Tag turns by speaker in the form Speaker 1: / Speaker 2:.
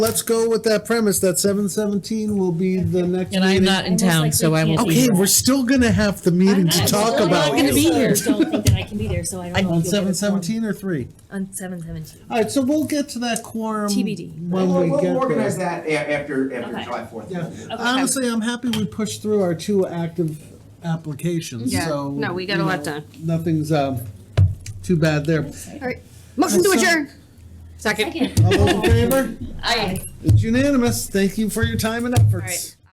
Speaker 1: let's go with that premise that seven seventeen will be the next
Speaker 2: And I'm
Speaker 1: meeting.
Speaker 2: not in
Speaker 3: Almost
Speaker 2: town,
Speaker 3: like
Speaker 2: so
Speaker 3: we
Speaker 2: I won't
Speaker 3: can't
Speaker 2: be
Speaker 1: Okay,
Speaker 2: here.
Speaker 1: we're still gonna have the meeting to
Speaker 3: I'm
Speaker 1: talk
Speaker 3: absolutely
Speaker 1: about.
Speaker 2: not gonna be
Speaker 3: so
Speaker 2: here.
Speaker 3: I don't think that I can be there, so I don't know.
Speaker 1: On
Speaker 3: if you'll get
Speaker 1: seven
Speaker 3: a quorum.
Speaker 1: seventeen or three?
Speaker 3: On seven seventeen.
Speaker 1: All right, so we'll get to that quorum.
Speaker 3: TBD.
Speaker 1: When we
Speaker 4: We'll
Speaker 1: get
Speaker 4: organize
Speaker 1: there.
Speaker 4: that a- after, after
Speaker 3: Okay.
Speaker 4: July 4th.
Speaker 1: Yeah. Honestly, I'm happy we pushed through our two active applications,
Speaker 5: Yeah,
Speaker 1: so.
Speaker 5: no, we got
Speaker 1: you
Speaker 5: a lot
Speaker 1: know,
Speaker 5: done.
Speaker 1: Nothing's, um, too bad there.
Speaker 5: Motion to
Speaker 1: So-
Speaker 5: adjourn. Second.
Speaker 3: Second.
Speaker 1: All those in favor?
Speaker 3: Aye.
Speaker 1: It's unanimous. Thank you for your time and efforts.